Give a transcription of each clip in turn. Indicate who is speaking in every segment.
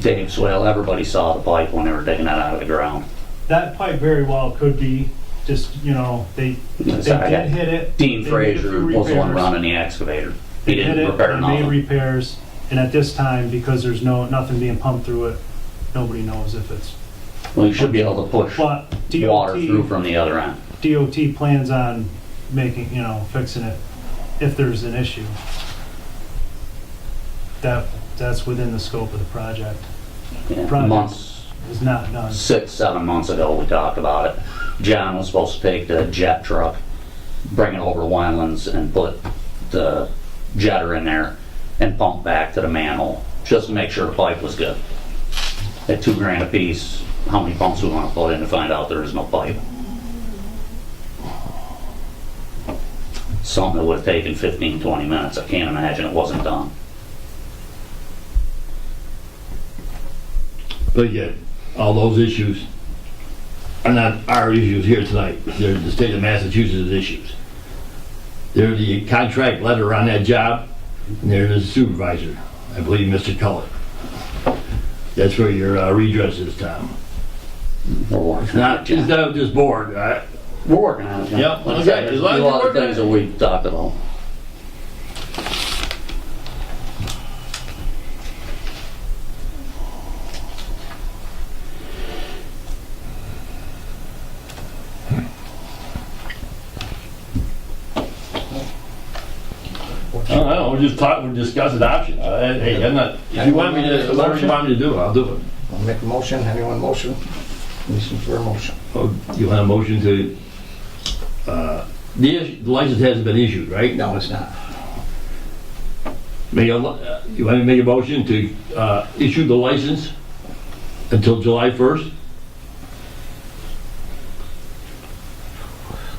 Speaker 1: digging swale, everybody saw the pipe when they were digging that out of the ground.
Speaker 2: That pipe very well could be just, you know, they, they
Speaker 1: It's like
Speaker 2: did hit it.
Speaker 1: Dean
Speaker 2: They made a few
Speaker 1: Fraser was the one
Speaker 2: repairs.
Speaker 1: running the excavator. He
Speaker 2: They hit
Speaker 1: didn't
Speaker 2: it,
Speaker 1: repair
Speaker 2: they made
Speaker 1: nothing.
Speaker 2: repairs, and at this time, because there's no, nothing being pumped through it, nobody knows if it's,
Speaker 1: Well, you should be able to push
Speaker 2: but
Speaker 1: water through
Speaker 2: DOT,
Speaker 1: from the other end.
Speaker 2: DOT plans on making, you know, fixing it if there's an issue. That, that's within the scope of the project,
Speaker 1: Yeah,
Speaker 2: Project.
Speaker 1: Months,
Speaker 2: it's not done.
Speaker 1: six, seven months ago, we talked about it. John was supposed to take the jet truck, bring it over to Wyland's and put the jetter in there and pump back to the manhole, just to make sure the pipe was good. At two grand a piece, how many pumps we wanna put in to find out there is no pipe? Something that would've taken 15, 20 minutes, I can't imagine it wasn't done.
Speaker 3: But yet, all those issues are not our issues here tonight. They're the state of Massachusetts' issues. They're the contract letter on that job, and they're the supervisor, I believe, Mr. Cullen. That's where your uh, redress is, Tom.
Speaker 1: We're working.
Speaker 3: Not, it's not this board, all right?
Speaker 1: We're working on it. John. Like
Speaker 3: Yep,
Speaker 1: I
Speaker 3: okay,
Speaker 1: said, there's
Speaker 3: as long as
Speaker 1: A
Speaker 3: you're
Speaker 1: lot of
Speaker 3: working
Speaker 1: things
Speaker 3: on
Speaker 1: that we talked about.
Speaker 3: I don't know, we're just talking, we're discussing options. I- Hey, I'm not, if you want me to, whatever you want me to do, I'll do it.
Speaker 4: I'll make a motion, anyone motion? Listen for a motion.
Speaker 3: Oh, You want a motion to, uh, the issue- the license hasn't been issued, right?
Speaker 4: No, it's not.
Speaker 3: Make a, uh, you want me to make a motion to uh, issue the license until July 1st?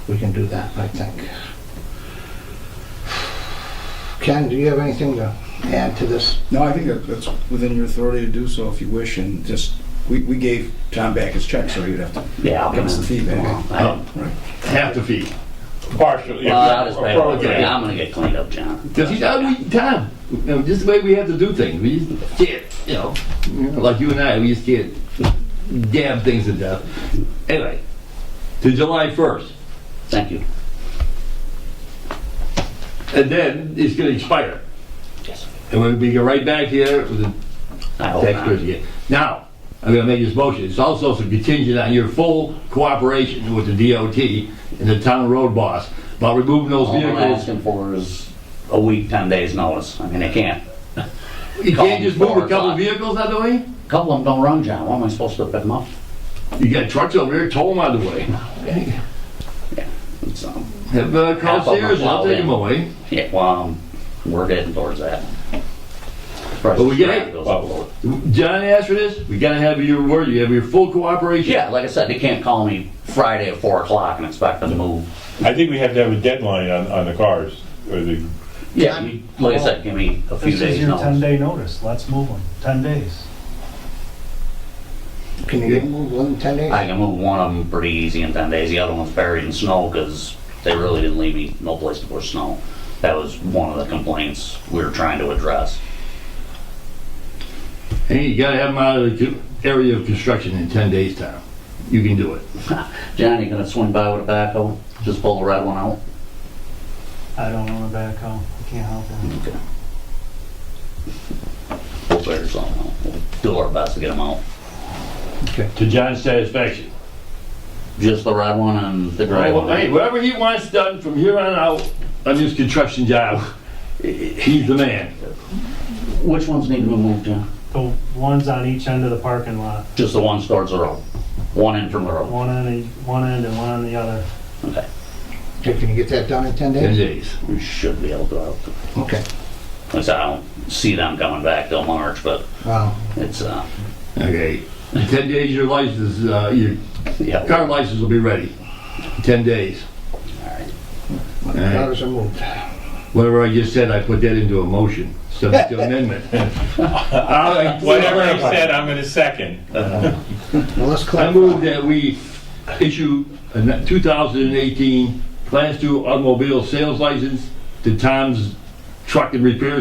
Speaker 4: We can do that, I think. Ken, do you have anything to add to this?
Speaker 5: No, I think that- that's within your authority to do so if you wish, and just, we, we gave Tom back his check, so you'd have to,
Speaker 1: Yeah, I'll come
Speaker 5: That's
Speaker 1: in
Speaker 5: the feedback.
Speaker 1: tomorrow.
Speaker 3: Uh,
Speaker 1: I-
Speaker 3: Half the fee.
Speaker 6: Partially.
Speaker 1: Well, that is bad.
Speaker 3: Okay.
Speaker 1: I'm gonna get cleaned up, John.
Speaker 3: Because, you know, we, Tom, you know, just the way we have to do things, we just can't, you know, like you and I, we just can't damn things to death. Anyway, to July 1st,
Speaker 1: Thank you.
Speaker 3: and then it's gonna expire.
Speaker 1: Yes.
Speaker 3: And we'll be right back here with the
Speaker 1: I hope
Speaker 3: Tax
Speaker 1: not.
Speaker 3: credit again. Now, I'm gonna make this motion, it's also contingent on your full cooperation with the DOT and the town road boss about removing those
Speaker 1: All I'm
Speaker 3: vehicles.
Speaker 1: asking for is a week, ten days notice. I mean, I can't.
Speaker 3: You can't just move a couple
Speaker 1: Call them.
Speaker 3: vehicles out of the way?
Speaker 1: A Couple of them don't run, John. Why am I supposed to pick them up?
Speaker 3: You got trucks over here, tow them out of the way. uh,
Speaker 1: So,
Speaker 3: Have, uh,
Speaker 1: Half
Speaker 3: call
Speaker 1: of them
Speaker 3: Sears, I'll
Speaker 1: plowed
Speaker 3: take them
Speaker 1: in.
Speaker 3: away.
Speaker 1: yeah, well, um, we're heading towards that. But
Speaker 3: we get it. John asked for this, we gotta have your word, you have your full cooperation.
Speaker 1: Yeah, like I said, they can't call me Friday at four o'clock and expect them to move.
Speaker 6: I think we have to have a deadline on, on the cars, or the,
Speaker 1: Yeah, you- like I said, give me a few
Speaker 2: This is
Speaker 1: days
Speaker 2: your
Speaker 1: notice.
Speaker 2: ten day notice, let's move them, ten days.
Speaker 4: Can you move within 10 days?
Speaker 1: I can move one of them pretty easy in ten days. The other one's buried in snow because they really didn't leave me no place to push snow. That was one of the complaints we were trying to address.
Speaker 3: And you gotta have them out of the co- area of construction in ten days' time. You can do it.
Speaker 1: Johnny, gonna swing by with a backhoe? Just pull the red one out?
Speaker 2: I don't own a backhoe, I can't help it.
Speaker 1: Okay. We'll figure something out. We'll do our best to get them out.
Speaker 3: To John's satisfaction.
Speaker 1: Just the red one and the gray
Speaker 3: Well, Hey,
Speaker 1: one?
Speaker 3: whatever he wants done from here on out on this construction job, he's the man.
Speaker 1: Which ones need to be moved, John?
Speaker 2: The ones on each end of the parking lot,
Speaker 1: Just the ones towards the road. One in from the road.
Speaker 2: one on the, one end and one on the other.
Speaker 1: Okay.
Speaker 4: Okay, Can you get that done in 10
Speaker 3: Ten
Speaker 4: days?
Speaker 3: days.
Speaker 1: We should be able to. Like
Speaker 4: Okay,
Speaker 1: I said, I don't see them coming back till March, but
Speaker 4: wow.
Speaker 1: it's, uh,
Speaker 3: Okay. In ten days, your license, uh, your
Speaker 1: yeah.
Speaker 3: car license will be ready. Ten days.
Speaker 4: My daughters are moved.
Speaker 3: Whatever I just said, I put that into a motion, subject to amendment. I-
Speaker 6: whatever he said, I'm gonna second.
Speaker 4: Well, let's
Speaker 3: I move
Speaker 4: clarify.
Speaker 3: that we issue a 2018 Class 2 automobile sales license to Tom's Truck and Repair